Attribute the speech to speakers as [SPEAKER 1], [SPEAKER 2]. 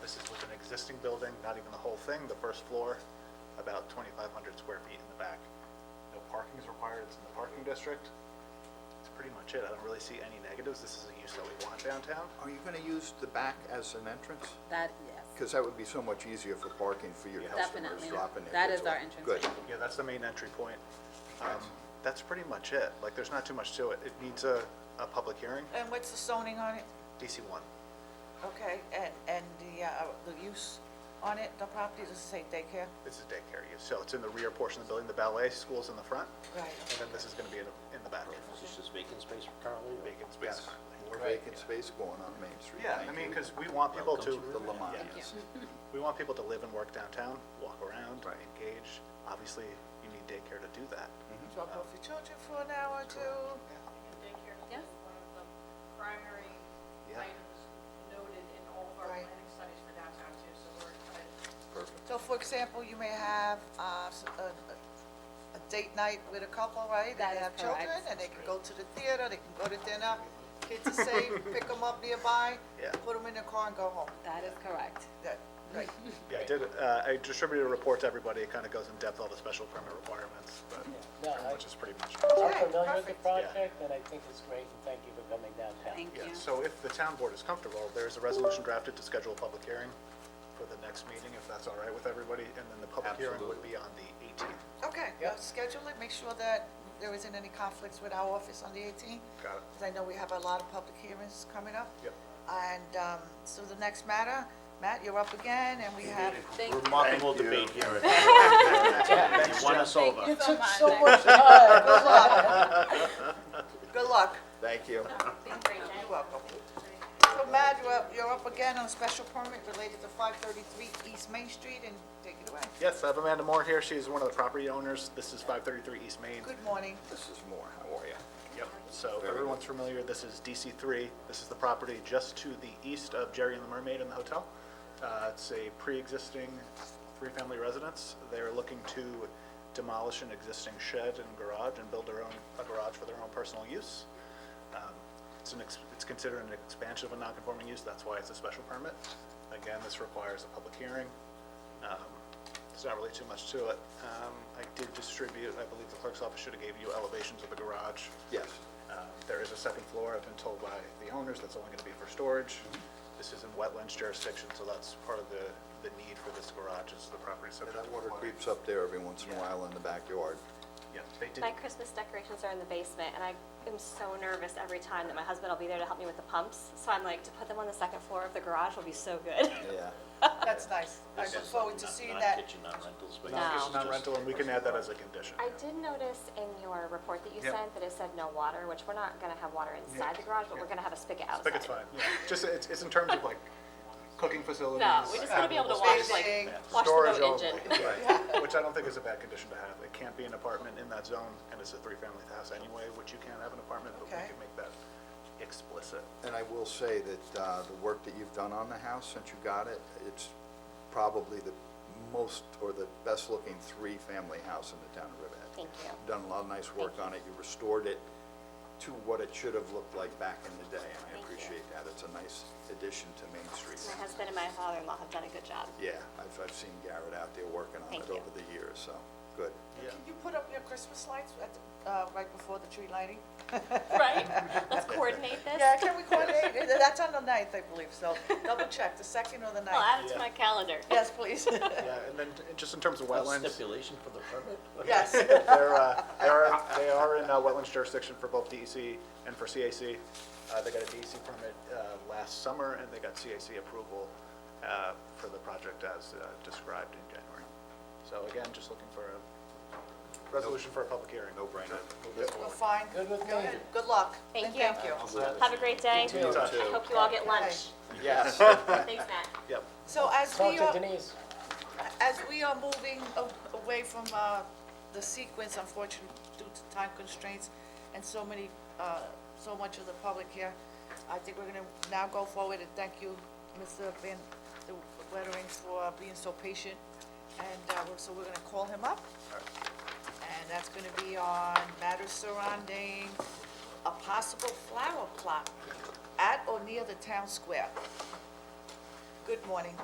[SPEAKER 1] This is with an existing building, not even the whole thing, the first floor, about 2,500 square feet in the back. No parking is required, it's in the parking district. That's pretty much it. I don't really see any negatives. This is a use that we want downtown.
[SPEAKER 2] Are you going to use the back as an entrance?
[SPEAKER 3] That, yes,
[SPEAKER 2] Because that would be so much easier for parking for your customers
[SPEAKER 3] Definitely.
[SPEAKER 2] dropping their
[SPEAKER 3] That
[SPEAKER 2] kids
[SPEAKER 3] is our
[SPEAKER 2] off.
[SPEAKER 3] entrance
[SPEAKER 2] Good.
[SPEAKER 3] way.
[SPEAKER 1] Yeah, that's the main entry point. Um, That's pretty much it. Like, there's not too much to it. It needs a, a public hearing,
[SPEAKER 4] And what's the zoning on it?
[SPEAKER 1] DC one.
[SPEAKER 4] Okay, and, and the, uh, the use on it, the property, does it say daycare?
[SPEAKER 1] This is daycare use, so it's in the rear portion of the building. The ballet school's in the front,
[SPEAKER 4] Right.
[SPEAKER 1] and then this is gonna be in, in the back.
[SPEAKER 5] Is this just vacant space currently? or-
[SPEAKER 1] Vacant space
[SPEAKER 2] Yes.
[SPEAKER 1] currently.
[SPEAKER 2] More vacant space going on Main Street.
[SPEAKER 1] Yeah, I
[SPEAKER 2] Thank
[SPEAKER 1] mean,
[SPEAKER 2] you.
[SPEAKER 1] because we want people to,
[SPEAKER 2] The Lamontians.
[SPEAKER 1] we want people to live and work downtown, walk around,
[SPEAKER 2] Right.
[SPEAKER 1] engage. Obviously, you need daycare to do that.
[SPEAKER 4] Drop off your children for an hour or two.
[SPEAKER 6] And daycare
[SPEAKER 3] Yeah.
[SPEAKER 6] is one of the primary
[SPEAKER 1] Yeah.
[SPEAKER 6] items noted in all of our
[SPEAKER 4] Right.
[SPEAKER 6] planning studies for downtown too, so we're excited.
[SPEAKER 2] Perfect.
[SPEAKER 4] So for example, you may have, uh, s- a, a- a date night with a couple, right?
[SPEAKER 3] That is
[SPEAKER 4] They have children,
[SPEAKER 3] correct.
[SPEAKER 4] and they can go to the theater, they can go to dinner, kids are safe, pick them up nearby,
[SPEAKER 1] Yeah.
[SPEAKER 4] put them in the car and go home.
[SPEAKER 3] that is correct.
[SPEAKER 4] That, right,
[SPEAKER 1] Yeah, I did, uh, I distributed a report to everybody. It kind of goes in depth all the special permit requirements, but
[SPEAKER 7] No, I-
[SPEAKER 1] which is pretty much.
[SPEAKER 7] I'm
[SPEAKER 4] Okay,
[SPEAKER 7] familiar with the
[SPEAKER 4] perfect.
[SPEAKER 7] project, and I think it's great, and thank you for coming downtown.
[SPEAKER 3] Thank
[SPEAKER 1] Yeah,
[SPEAKER 3] you.
[SPEAKER 1] so if the town board is comfortable, there is a resolution drafted to schedule a public hearing for the next meeting, if that's all right with everybody, and then the public hearing would be on the 18th.
[SPEAKER 4] okay, now schedule it, make sure that there isn't any conflicts with our office on the 18th.
[SPEAKER 1] Got it.
[SPEAKER 4] Because I know we have a lot of public hearings coming up.
[SPEAKER 1] Yep.
[SPEAKER 4] And, um, so the next matter, Matt, you're up again, and we have
[SPEAKER 3] Thank you.
[SPEAKER 5] Remarkable
[SPEAKER 2] Thank you.
[SPEAKER 5] debate here. You won us over.
[SPEAKER 3] Thank you
[SPEAKER 7] Took
[SPEAKER 3] so
[SPEAKER 7] so
[SPEAKER 3] much.
[SPEAKER 7] much time.
[SPEAKER 4] Good luck. Good luck.
[SPEAKER 2] Thank you.
[SPEAKER 4] You're welcome. So Matt, you're up, you're up again on a special permit related to 533 East Main Street, and take it away.
[SPEAKER 1] Yes, I have Amanda Moore here. She is one of the property owners. This is 533 East Main.
[SPEAKER 4] Good morning.
[SPEAKER 2] This is more. How are you?
[SPEAKER 1] Yep. So if
[SPEAKER 2] Very
[SPEAKER 1] everyone's familiar, this is DC three. This is the property just to the east of Jerry and the Mermaid and the hotel. Uh, it's a pre-existing three-family residence. They're looking to demolish an existing shed and garage and build their own, a garage for their own personal use. Um, It's an, ex- it's considered an expansion of a non-conforming use, that's why it's a special permit. Again, this requires a public hearing. Um, There's not really too much to it. Um, I did distribute, I believe the clerk's office should have gave you elevations of the garage.
[SPEAKER 2] Yes.
[SPEAKER 1] Um, There is a second floor, I've been told by the owners, that's only gonna be for storage. This is in wetlands jurisdiction, so that's part of the, the need for this garage, is the property subject to
[SPEAKER 2] That water
[SPEAKER 1] water.
[SPEAKER 2] creeps up there every once in a while in the backyard.
[SPEAKER 1] Yeah, they did,
[SPEAKER 8] My Christmas decorations are in the basement, and I am so nervous every time that my husband will be there to help me with the pumps. So I'm like, to put them on the second floor of the garage will be so good.
[SPEAKER 2] Yeah.
[SPEAKER 4] That's nice. I look forward to
[SPEAKER 5] Not-
[SPEAKER 4] seeing
[SPEAKER 5] not
[SPEAKER 4] that.
[SPEAKER 5] kitchen, not rental space.
[SPEAKER 8] No.
[SPEAKER 5] This is
[SPEAKER 1] not
[SPEAKER 5] just-
[SPEAKER 1] rental, and we can add that as a condition.
[SPEAKER 8] um, I did notice in your report that you
[SPEAKER 1] Yep.
[SPEAKER 8] sent that it said no water, which we're not gonna have water inside the garage, but we're gonna have a spigot outside.
[SPEAKER 1] think it's fine, yeah. Just, it's, it's in terms of like cooking facilities.
[SPEAKER 8] No, we just wanna be able to wash, like,
[SPEAKER 4] Facing-
[SPEAKER 8] wash the
[SPEAKER 1] Storage
[SPEAKER 8] boat engine.
[SPEAKER 1] only, right. Which I don't think is a bad condition to have. It can't be an apartment in that zone, and it's a three-family house anyway, which you can't have an apartment, but we
[SPEAKER 4] Okay.
[SPEAKER 1] can make that explicit.
[SPEAKER 2] And I will say that uh, the work that you've done on the house since you got it, it's probably the most or the best-looking three-family house in the town of Riverhead.
[SPEAKER 8] Thank you.
[SPEAKER 2] You've Done a lot of nice work on it. You restored it to what it should have looked like back in the day, and I
[SPEAKER 8] Thank you.
[SPEAKER 2] appreciate that. It's a nice addition to Main Street.
[SPEAKER 8] My husband and my father-in-law have done a good job.
[SPEAKER 2] Yeah, I've, I've seen Garrett out there working on
[SPEAKER 8] Thank
[SPEAKER 2] it
[SPEAKER 8] you.
[SPEAKER 2] over the years, so, good.
[SPEAKER 1] Yeah.
[SPEAKER 4] Can you put up your Christmas lights at, the- uh, right before the tree lighting?
[SPEAKER 8] Right? Let's coordinate this.
[SPEAKER 4] Yeah, can we coordinate? Uh, That's on the ninth, I believe, so double check, the second or the
[SPEAKER 8] I'll
[SPEAKER 4] ninth.
[SPEAKER 8] add it
[SPEAKER 1] Yeah.
[SPEAKER 8] to my calendar.
[SPEAKER 4] Yes, please.
[SPEAKER 1] Yeah, and then t- just in terms of wetlands,
[SPEAKER 5] Stipulation for the permit?
[SPEAKER 4] Yes.
[SPEAKER 1] they're, uh, they are, they are in uh, wetlands jurisdiction for both DEC and for CAC. Uh, They got a DEC permit uh, last summer, and they got CAC approval uh, for the project as uh, described in January. So again, just looking for a resolution for a public hearing.
[SPEAKER 2] No brainer.
[SPEAKER 4] We're fine.
[SPEAKER 7] Good with
[SPEAKER 4] Go
[SPEAKER 7] me.
[SPEAKER 4] ahead. Good luck.
[SPEAKER 8] Thank
[SPEAKER 4] And
[SPEAKER 8] you.
[SPEAKER 4] Thank you.
[SPEAKER 8] Have a great day.
[SPEAKER 2] You
[SPEAKER 8] I
[SPEAKER 2] too.
[SPEAKER 8] hope you all get lunch.
[SPEAKER 2] Yes.
[SPEAKER 8] Thanks, Matt.
[SPEAKER 1] Yep.
[SPEAKER 4] So as
[SPEAKER 7] Talk
[SPEAKER 4] we
[SPEAKER 7] to
[SPEAKER 4] are.
[SPEAKER 7] Denise.
[SPEAKER 4] As we are moving a- away from uh, the sequence, unfortunately, due to time constraints and so many, uh, so much of the public here, I think we're going to now go forward and thank you, Mr. Van the Wettering, for uh, being so patient. And uh, we're- so we're going to call him up. And that's going to be on matters surrounding a possible flower plot at or near the town square. Good morning.